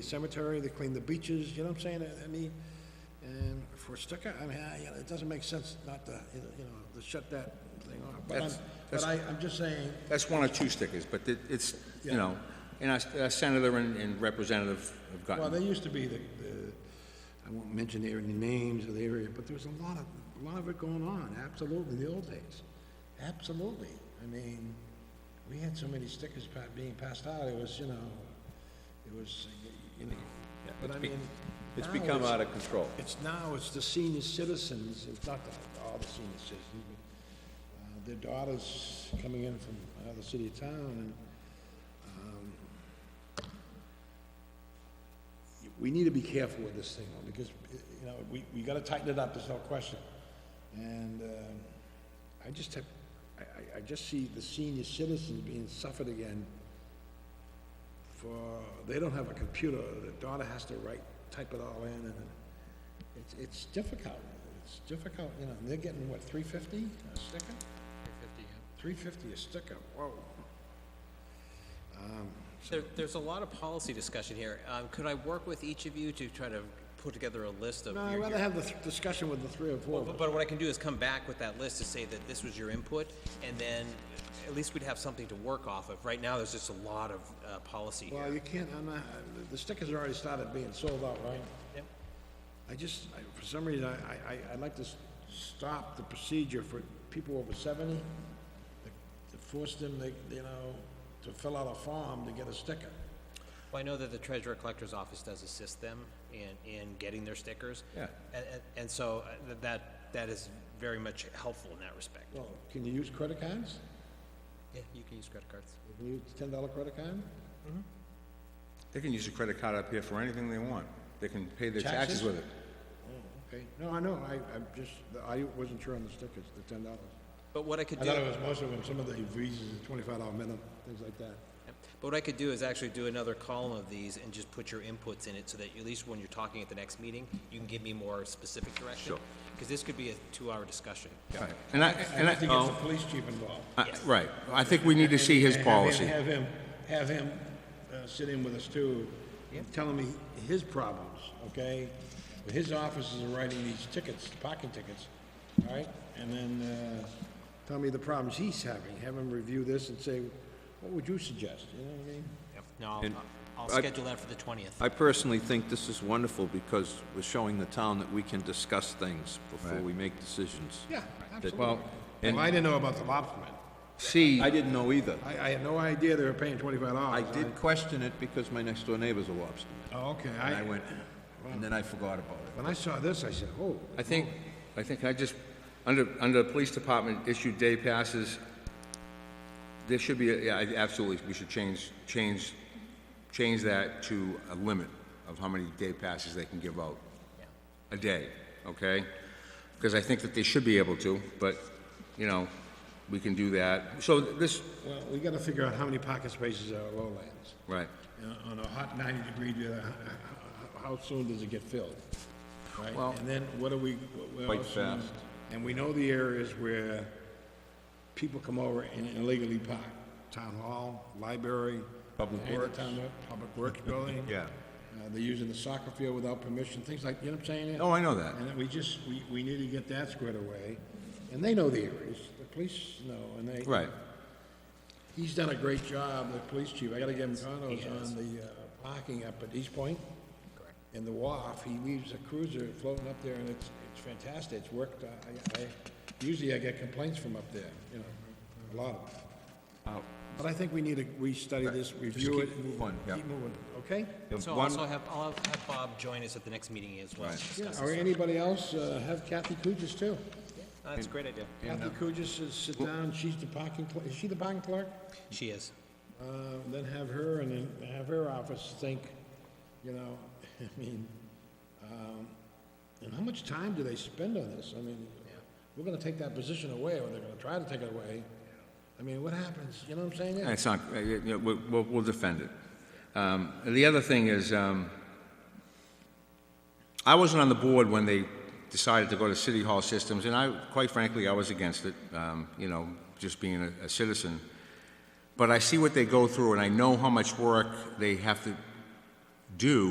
the cemetery, they clean the beaches, you know what I'm saying? I- I mean, and for a sticker, I mean, I, you know, it doesn't make sense not to, you know, you know, to shut that thing off. But I'm, That's- but that's- I, I'm just saying, That's one or two stickers, but it- it's, you know, and our- our senator and- and representative have well, gotten, there used to be the, the, I won't mention the area- any names of the area, but there was a lot of, a lot of it going on, absolutely, in the old days. Absolutely. I mean, we had so many stickers pa- being passed out, it was, you know, it was, you know, but I be- mean. It's now become out of control. It's now, it's the senior citizens, it's not the- all the senior citizens, but uh, their daughters coming in from another city or town, and um, we need to be careful with this thing, though, because, you know, we, we gotta tighten it up, there's no question. And um, I just have, I, I- I just see the senior citizens being suffered again for, they don't have a computer, the daughter has to write, type it all in, and it's, it's difficult, it's difficult, you know, and they're getting, what, three fifty a sticker? Three fifty, yeah. Three fifty a sticker, whoa. There, there's a lot of policy discussion here. Um, could I work with each of you to try to put together a list of No, your- I'd rather your- have the th- discussion with the three or four of But, us. but what I can do is come back with that list to say that this was your input, and then at least we'd have something to work off of. Right now, there's just a lot of, uh, policy here. Well, you can't, I'm not, the stickers already started being sold out, right? Yep. I just, I- for some reason, I, I, I- I'd like to s- stop the procedure for people over seventy, to- to force them, they, you know, to fill out a form to get a sticker. Well, I know that the treasurer collector's office does assist them in, in getting their stickers. Yeah. And, and, and so uh, th- that, that is very much helpful in that respect. Well, can you use credit cards? Yeah, you can use credit cards. Can you use ten dollar credit card? they can use a credit card up here for anything they want. They can pay their Taxes? taxes with it. Okay, no, I know, I, I'm just, I wasn't sure on the stickers, the ten dollars. But what I could I do. thought it was mostly when some of the visas, the twenty-five dollar minimum, things like that. But what I could do is actually do another column of these and just put your inputs in it so that at least when you're talking at the next meeting, you can give me more specific direction. Sure. Because this could be a two-hour discussion. Right. And I, I and have to I, Oh. get the police chief involved. I- right, I think we need to see his And have him- policy. Have him, have him uh, sit in with us too, telling me his problems, okay? His offices are writing these tickets, parking tickets, all right? And then, uh, tell me the problems he's having, have him review this and say, what would you suggest, you know what I mean? No, I'll- And I'll I- schedule that for the 20th. I personally think this is wonderful because we're showing the town that we can discuss things before Right. we make decisions. Yeah, Well, absolutely. and- Well, I didn't know about the lobstermen. C, I didn't know either. I, I had no idea they were paying twenty-five I dollars. did question it because my next door neighbor's a lobsterman. Oh, okay, And I I, went, and then I forgot about it. when I saw this, I said, oh, I think, I think I just, under, under the police department issued day passes, there should be, a- yeah, I- absolutely, we should change, change, change that to a limit of how many day passes they can give out. A day, okay? Because I think that they should be able to, but, you know, we can do that. So this, well, we gotta figure out how many parking spaces are lowlands. right, you know, on a hot 90 degree, day, h- h- how soon does it get filled? Right? And then what do we, what- what Quite else we- fast. And we know the areas where people come over and illegally park. Town hall, library. Public any of the Works. town hall- Public Works building. Yeah. Uh, They're using the soccer field without permission, things like, you know what I'm saying? oh, I know that. And we just, we, we need to get that squared away. And they know the areas, the police know, and they. Right, He's done a great job, the police chief. I gotta give him condos on the uh, parking up at East Point. In the WAF, he leaves a cruiser floating up there and it's, it's fantastic. It's worked. uh, I, I, usually I get complaints from up there, you know, a lot of them. But I think we need to restudy this, review it. Uh, keep moving, yeah. Keep moving, okay? So I'll also have, I'll have Bob join us at the next meeting as well. to Yeah, discuss or this. anybody else, uh, have Kathy Kugis too. Uh, That's a great idea. Kathy Kugis is sit down, she's the parking, clerk. is she the parking clerk? She is. Uh, then have her, and then have her office think, you know, I mean, um, and how much time do they spend on this? I mean, we're gonna take that position away, or they're gonna try to take it away. I mean, what happens, you know what I'm saying? It's not, uh, you know, we'll- we'll, we'll defend it. Um, and The other thing is, um, I wasn't on the board when they decided to go to city hall systems, and I, quite frankly, I was against it, um, you know, just being a- a citizen. But I see what they go through, and I know how much work they have to do